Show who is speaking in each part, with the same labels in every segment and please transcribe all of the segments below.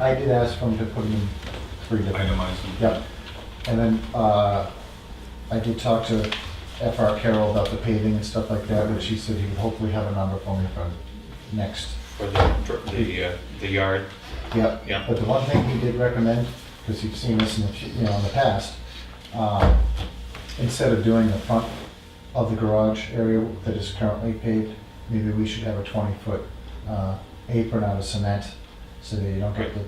Speaker 1: I did ask for him to put them in three different,
Speaker 2: itemize them.
Speaker 1: yep. And then, uh, I did talk to FR Carroll about the paving and stuff like that, which he said he would hopefully have a number for me for next.
Speaker 3: for the, for the, uh, the yard.
Speaker 1: Yep.
Speaker 3: Yeah.
Speaker 1: But the one thing he did recommend, because you've seen this in the, fu- you know, in the past, um, instead of doing the front of the garage area that is currently paved, maybe we should have a twenty-foot, uh, apron out of cement, so that you don't get the,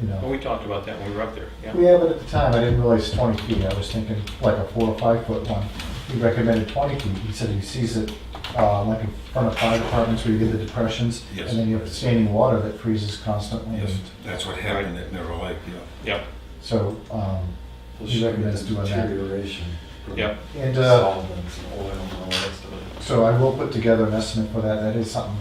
Speaker 1: you know.
Speaker 3: Well, Oh, we talked about that when we were up there, yeah.
Speaker 1: Yeah, but at the time, I didn't realize 20 feet. I was thinking like a four or five foot one. He recommended 20 feet. He said he sees it uh, like in front of fire departments where you get the depressions.
Speaker 2: Yes.
Speaker 1: And then you have standing water that freezes constantly.
Speaker 2: Yes,
Speaker 1: And
Speaker 2: that's what happened at Mirror Lake, yeah.
Speaker 3: Yep,
Speaker 1: So um,
Speaker 4: We'll
Speaker 1: he
Speaker 4: show
Speaker 1: recommends
Speaker 4: the
Speaker 1: doing that.
Speaker 4: Deterioration. from
Speaker 3: yep.
Speaker 1: And uh,
Speaker 4: Solvents and oil and all the rest of it.
Speaker 1: so I will put together an estimate for that. That is something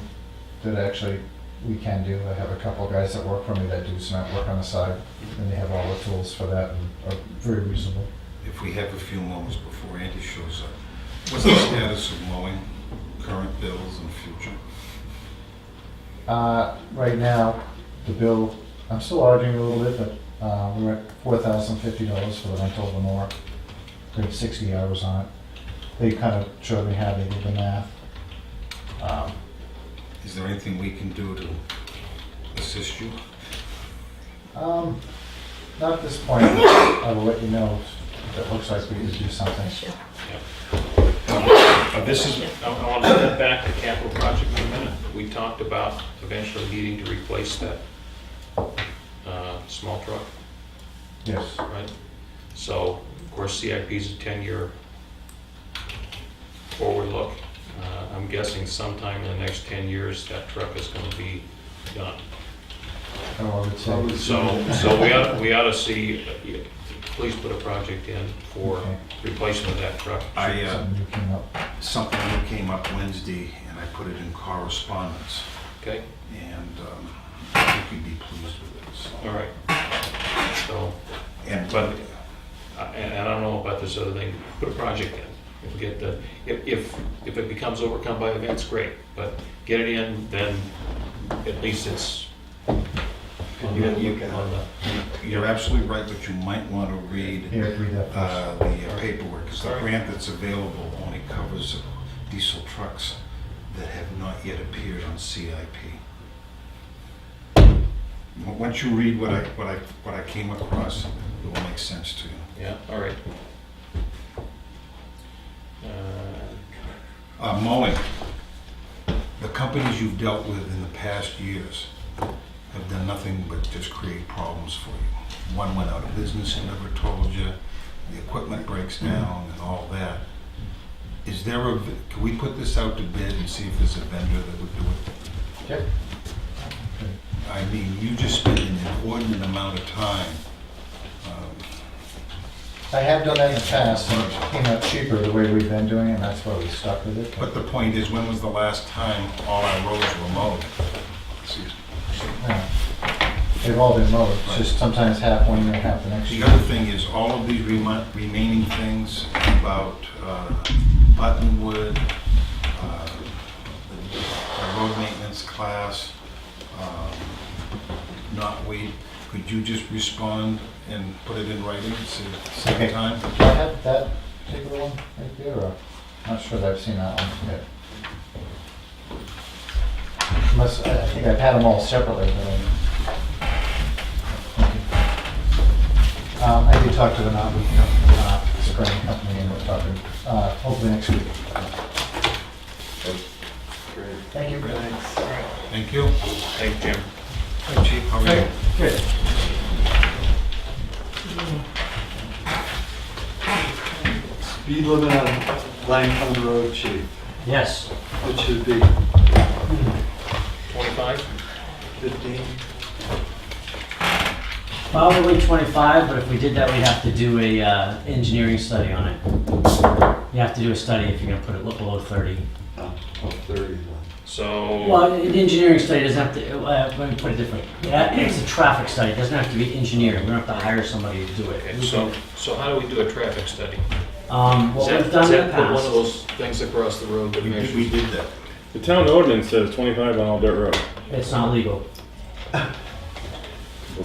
Speaker 1: that actually we can do. I have a couple of guys that work for me that do cement work on the side, and they have all the tools for that and are very reasonable.
Speaker 2: If we have a few moments before Andy shows up, what's the status of mowing, current bills and future?
Speaker 1: Uh, right now, the bill, I'm still arguing a little bit, but, uh, we're at four thousand fifty dollars for the rental of the mower. They have sixty hours on it. They kind of showed me how they did the math. Um,
Speaker 2: Is there anything we can do to assist you?
Speaker 1: Um, not at this point, but I will let you know if it looks like we need to do something.
Speaker 3: Uh, This is, I I want to step back to capital project for a minute. We talked about eventually needing to replace that uh, small truck,
Speaker 1: Yes,
Speaker 3: right? So, of course, CIP is a 10-year forward look. Uh, I'm guessing sometime in the next 10 years, that truck is going to be done.
Speaker 1: I would
Speaker 4: So
Speaker 1: say.
Speaker 4: it's-
Speaker 3: So, so we ought, we ought to see, uh, please put a project in for
Speaker 1: Okay.
Speaker 3: replacement of that truck.
Speaker 2: I, uh,
Speaker 1: Something new came up.
Speaker 2: something that came up Wednesday and I put it in correspondence
Speaker 3: Okay,
Speaker 2: and um, I think you'd be pleased with it, so.
Speaker 3: all right. So,
Speaker 2: And,
Speaker 3: But- I- and and I don't know about this other thing, put a project in. If we get the, if, if, if it becomes overcome by events, great, but get it in, then at least it's on
Speaker 4: You
Speaker 3: the,
Speaker 4: gotta look at it.
Speaker 3: on the,
Speaker 2: you're absolutely right, but you might want to read
Speaker 1: Here, read that first.
Speaker 2: uh, the paperwork, because the
Speaker 3: Sorry.
Speaker 2: grant that's available only covers diesel trucks that have not yet appeared on CIP. W- Once you read what I, what I, what I came across, it will make sense to you.
Speaker 3: yeah, all right. Uh,
Speaker 2: Uh, Mowing, the companies you've dealt with in the past years have done nothing but just create problems for you. One went out of business and never told you, the equipment breaks down and all that. Is there a, v- can we put this out to bid and see if there's a vendor that would do it?
Speaker 1: Yep.
Speaker 2: I mean, you just spent an inordinate amount of time. um,
Speaker 1: I have done that in the past, and it came out cheaper the way we've been doing it, and that's why we stuck with it.
Speaker 2: But the point is, when was the last time all our roads were mowed? Excuse me.
Speaker 1: Yeah. They've all been mowed, it's just sometimes half one year, half the next
Speaker 2: The
Speaker 1: year.
Speaker 2: other thing is, all of these remi- remaining things about uh, Buttonwood, uh, the road maintenance class, um, not weed, could you just respond and put it in writing at the same
Speaker 1: Okay.
Speaker 2: time?
Speaker 1: Do I have that particular one right there, or, I'm not sure that I've seen that one yet. Unless, I I think I've had them all separately, but I. Okay. Um, I did talk to the Mountain Company, uh, Spring Company, and we're talking, uh, hopefully next week.
Speaker 4: Great.
Speaker 1: Thank you.
Speaker 4: Thanks.
Speaker 2: Thank you.
Speaker 3: thank Jim.
Speaker 2: Hi, Chief, how are you?
Speaker 1: Good.
Speaker 4: Speed limit on Langford Road, chief,
Speaker 5: Yes,
Speaker 4: it should be
Speaker 3: Twenty-five?
Speaker 4: fifteen.
Speaker 5: probably 25, but if we did that, we'd have to do a uh, engineering study on it. You have to do a study if you're gonna put it lo- below 30.
Speaker 4: Oh, oh, thirty then.
Speaker 3: So,
Speaker 5: Well, an engineering study doesn't have to, uh, let me put it differently. Yeah, It's a traffic study, it doesn't have to be engineered, we don't have to hire somebody to do
Speaker 3: okay,
Speaker 5: it.
Speaker 3: so, so how do we do a traffic study?
Speaker 5: Um,
Speaker 3: Is
Speaker 5: What
Speaker 3: that-
Speaker 5: we've done
Speaker 3: is
Speaker 5: in the
Speaker 3: that put One of
Speaker 5: past,
Speaker 3: those things across the road that
Speaker 2: We did-
Speaker 3: measures.
Speaker 2: We did that.
Speaker 6: The town ordinance says twenty-five on all dirt roads.
Speaker 5: it's not legal.